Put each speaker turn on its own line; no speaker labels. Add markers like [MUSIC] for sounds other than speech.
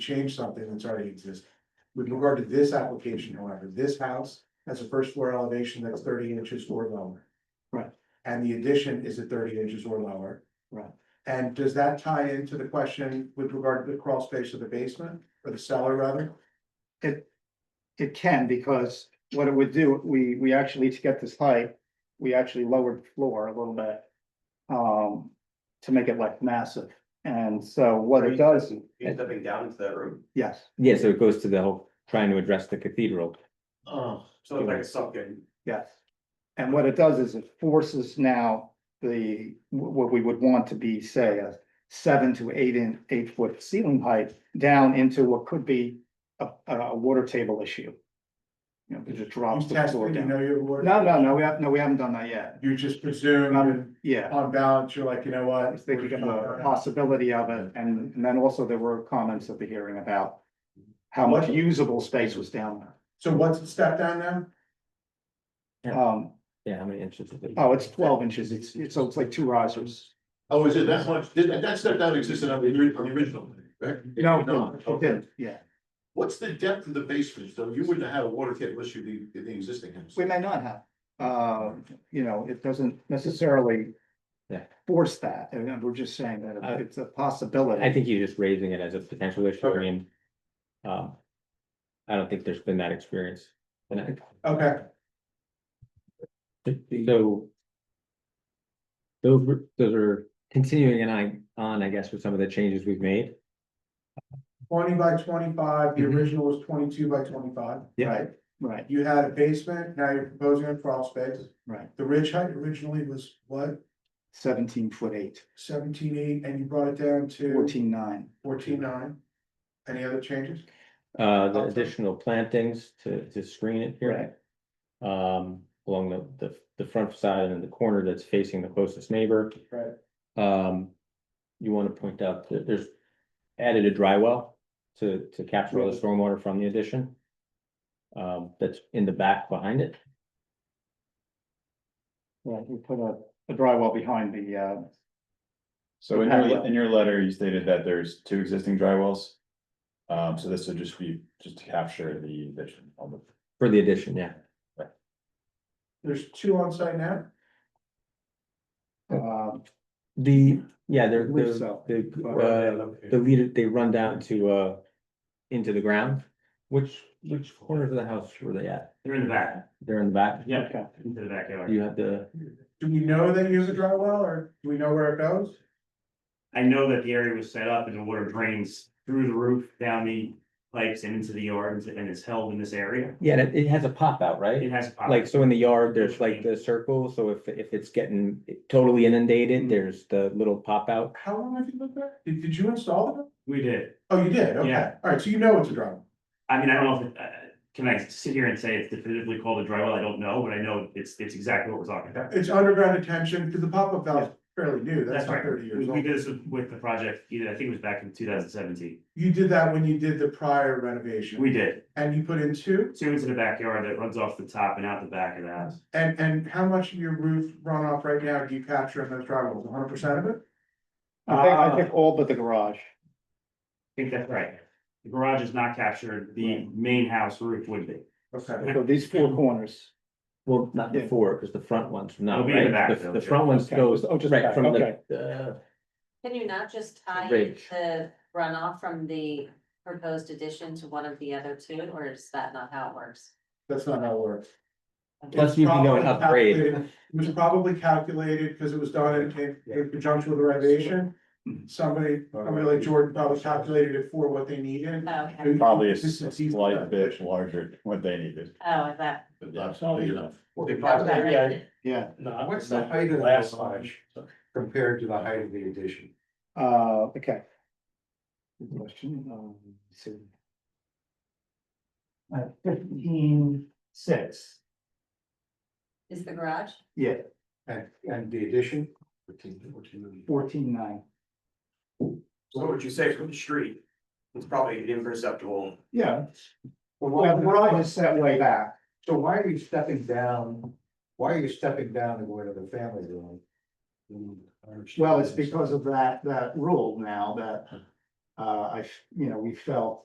change something that's already existing. With regard to this application, however, this house has a first floor elevation that's thirty inches or lower.
Right.
And the addition is at thirty inches or lower.
Right.
And does that tie into the question with regard to the crawl space of the basement or the cellar rather?
It can, because what it would do, we, we actually, to get this height, we actually lowered the floor a little bit. Um, to make it like massive, and so what it does,
You're stepping down into that room.
yes,
Yeah, so it goes to the whole trying to address the cathedral.
Uh,
Oh. So it's like a sunken.
yes. And what it does is it forces now the, what we would want to be, say, a seven to eight in, eight foot ceiling height. Down into what could be a, a, a water table issue. You know, it just drops
You
the
tested,
floor
you
down.
know your word.
No, no, no, we have, no, we haven't done that yet,
You just presume and
yeah.
on balance, you're like, you know what?
I was thinking of the
we're-
possibility of it, and, and then also there were comments at the hearing about how much usable space was down
So what's the step down now?
there. Um,
Yeah, how many inches is it?
oh, it's twelve inches, it's, it's, so it's like two risers.
Oh, is it that much? Did that, that step down existed on the ori- on the original, right? No, okay.
Yeah,
What's the depth of the basement? So you wouldn't have had a water table issue in the, in the existing house.
we may not have, uh, you know, it doesn't necessarily
Yeah.
force that, and we're just saying
Uh,
that it's a
I
possibility.
think you're just raising it as a potential issue, I
Okay.
mean. Um. I don't think there's been that experience. And I-
Okay,
So. Those were, those are continuing and I, on, I guess, with some of the changes we've made.
twenty by twenty-five, the
Mm-hmm.
Mhm.
original was twenty-two by twenty-five.
Yeah.
right?
Right,
You had a basement, now you're proposing a crawl space.
right,
The ridge height originally was what,
seventeen foot eight,
seventeen eight, and you brought it down to
fourteen nine,
fourteen nine? Any other changes?
Uh, the
Okay.
additional plantings to, to screen it here. Um, along the, the, the front side and the corner that's facing the closest neighbor.
Right.
Um, you want to point out that there's added a dry well to, to capture all the stormwater from the addition. Um, that's in the back behind it.
right, we put a, a drywall behind the,
[LAUGHS]
uh,
So in
patio.
your, in your letter, you stated that there's two existing dry wells. Um, so this would just be, just to capture the addition on the,
For the addition, yeah.
There's two on site now?
uh,
The, yeah, they're,
Believe
they're-
so.
the, uh, the leader, they run down to, uh, into the ground. Which, which corners of the house were they at?
They're in the back.
They're in the back?
Yeah.
okay.
Into the
You
backyard.
have the,
Do we know they use a dry well, or do we know where it goes?
I know that the area was set up and the water drains through the roof, down the pipes and into the yard and it's held in this area.
yeah, it, it has a pop out,
It
right?
has. a pop-
Like, so in the yard, there's like the circle, so if, if it's getting totally inundated, there's the little pop out.
How long have you lived there? Did, did you install it?
We did.
Oh, you did, okay,
Yeah.
alright, so you know it's a dry well.
I mean, I don't know if, it- uh, can I sit here and say it's definitively called a dry well? I don't know, but I know it's, it's exactly what we're talking about.
It's underground attention, because the pop-up valve's fairly new, that's
That's
not
right.
thirty
We
years
we
old.
did this with- with the project, either, I think it was back in two thousand seventeen.
You did that when you did the prior renovation,
We did.
and you put in two,
Two into the backyard that runs off the top and out the back of the house.
and, and how much of your roof runoff right now do you capture in those dry wells, hundred percent of it?
I think, I think all but the garage.
I think that's right. The garage is not captured, the main house roof would be.
Okay.
So these four corners,
Well, not
Yeah.
before, because the front ones,
It'll
no,
be in the
right?
back,
The,
though,
the
Jim.
front ones
Okay.
goes,
Oh, just
right,
back,
from
okay.
the, uh,
Can you not just tie in
Ridge.
the runoff from the proposed addition to one of the other two, or is that not how it works?
That's not how it works.
Plus, you can go and
It's probably
upgrade.
calculated- It was probably calculated, because it was done in- in, in conjunction with the renovation.
Mm-hmm.
Somebody, somebody like Jordan probably calculated it for what they needed.
Oh, Okay,
probably a
This
s-
is
a
easy.
slight bit larger than what they needed.
oh, that.
But that's not big enough.
The property, yeah,
yeah,
no, what's the height of the last garage compared to the height of the addition?
uh, okay. Good question, um, let's see. Uh, fifteen, six,
Is the garage?
yeah,
And, and the addition,
fourteen, nine,
What would you say from the street? It's probably imperceptible.
yeah.
Well,
Well,
what I-
was set way back,
so why are you stepping down, why are you stepping down to go to the family room?
well, it's because of that, that rule now that Uh, I, f- you know, we felt